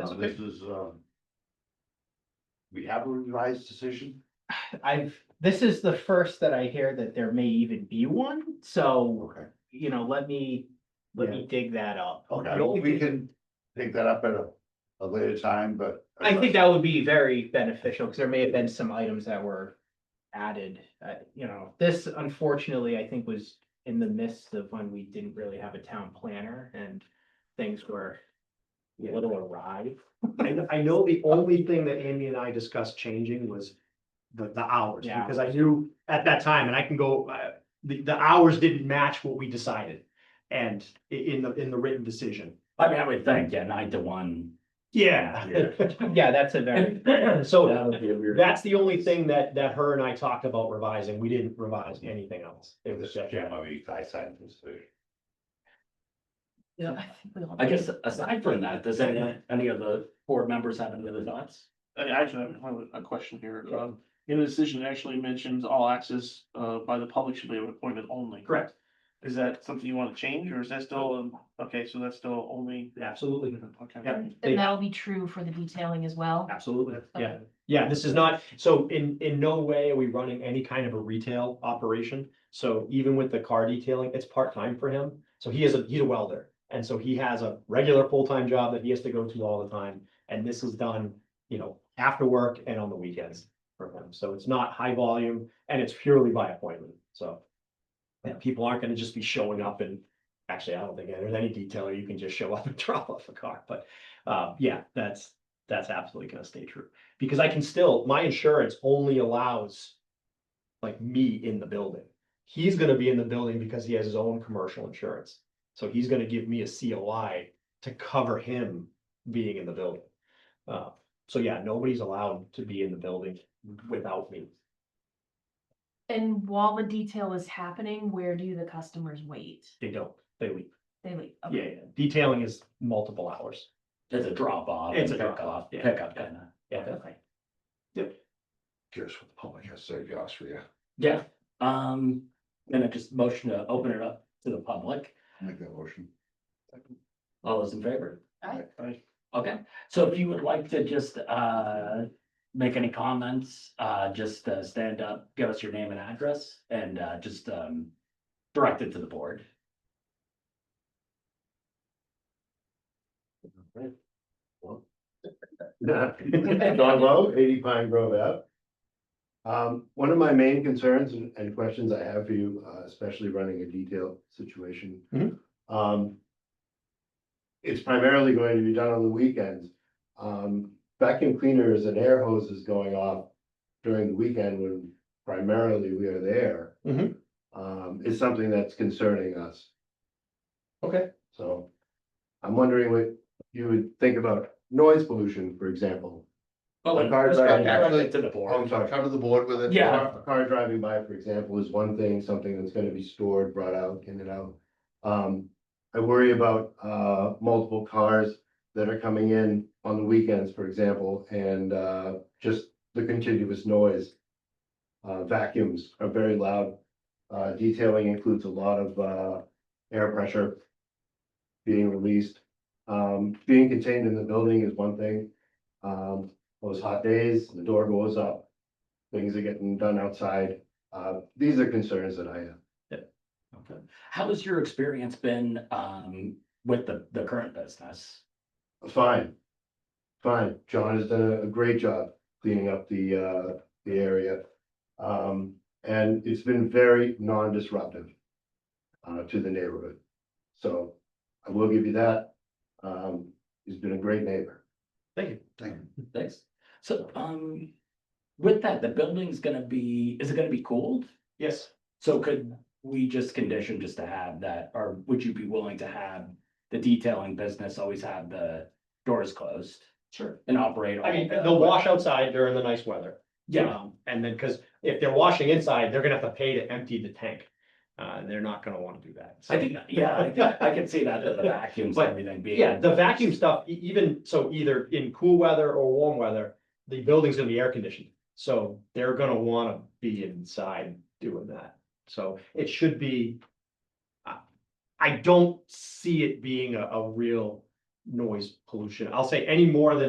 Now, okay. this is, uh. We have a revised decision, I've, this is the first that I hear that there may even be one, so, okay, you know, let me, let me dig that up. okay, we can take that up at a, a later time, but. I think that would be very beneficial, because there may have been some items that were added, uh, you know, this unfortunately, I think was in the midst of when we didn't really have a town planner and things were a little awry. I, kn- I know the only thing that Amy and I discussed changing was the, the hours, Yeah. because I knew at that time, and I can go, uh, the, the hours didn't match what we decided. And i- in the, in the written decision. I mean, I would think, yeah, nine to one. Yeah. Yeah, that's a very, So That would be a weird. that's the only thing that, that her and I talked about revising. We didn't revise anything else. It was This just, Jim, I mean, I signed this, decision. Yeah, I think we all- I guess aside from that, does any, any of the board members have any other thoughts? I actually have a- a question here. Um, in the decision, it actually mentions all access, uh, by the public should be an appointment only. correct, Is that something you want to change or is that still, um, okay, so that's still only? absolutely, Okay. Yep. They- And that'll be true for the detailing as well. absolutely, yeah. Okay. Yeah, this is not, so in, in no way are we running any kind of a retail operation. So even with the car detailing, it's part-time for him. So he is a, he's a welder. And so he has a regular full-time job that he has to go to all the time. And this is done, you know, after work and on the weekends for him. So it's not high volume and it's purely by appointment, so. yeah, people aren't gonna just be showing up and, actually, I don't think there's any detailer, you can just show up and drop off a car, but, uh, yeah, that's, that's absolutely gonna stay true. Because I can still, my insurance only allows like me in the building. He's gonna be in the building because he has his own commercial insurance. So he's gonna give me a COI to cover him being in the building. Uh, so yeah, nobody's allowed to be in the building without me. And while the detail is happening, where do the customers wait? They don't, they leave. They leave. okay. Yeah, yeah. Detailing is multiple hours. It's a drop off. It's and a pick drop-off, up- yeah. Pick up, kinda. Yeah. Okay. curious what the public has to say, Josh, for you. Yeah, um, then I just motion to open it up to the public. Make that motion. All those in favor? Aye. Aye. Okay, so if you would like to just, uh, make any comments, uh, just, uh, stand up, give us your name and address and, uh, just, um, direct it to the board. John Lowe, eighty Pine Grove Ave. Um, one of my main concerns and, and questions I have for you, uh, especially running a detailed situation. Mhm. Um. It's primarily going to be done on the weekends. Um, vacuum cleaners and air hoses going off during the weekend when primarily we are there. Mhm. Um, is something that's concerning us, Okay. so. I'm wondering what you would think about noise pollution, for example. Oh, The cards just are- direct- direct it To the board. Oh, I'm sorry, cover the board with it. Yeah. Car- A car driving by, for example, is one thing, something that's gonna be stored, brought out, in and out. Um, I worry about, uh, multiple cars that are coming in on the weekends, for example, and, uh, just the continuous noise. Uh, vacuums are very loud. Uh, detailing includes a lot of, uh, air pressure being released. Um, being contained in the building is one thing. Um, those hot days, the door goes up. Things are getting done outside. Uh, these are concerns that I have. Okay. How has your experience been um with the the current business? Fine. Fine. John has done a- a great job cleaning up the, uh, the area. Um, and it's been very non-disruptive uh, to the neighborhood. So I will give you that. Um, he's been a great neighbor. Thank you. Thanks. So um with that, the building's gonna be, is it gonna be cooled? Yes. So could we just condition just to have that, or would you be willing to have the detailing business always have the doors closed Sure. and operate? all I mean, the- they'll wash outside during the nice weather. Yeah, Um, And then, because if they're washing inside, they're gonna have to pay to empty the tank. Uh, and they're not gonna wanna do that. so. I think, yeah, I think I can see that, the vacuums and But, everything being. Yeah, the vacuum stuff, e- even, so either in cool weather or warm weather, the building's gonna be air conditioned. So they're gonna wanna be inside doing that. So it should uh, be. I- I don't see it being a, a real noise pollution. I'll say any more than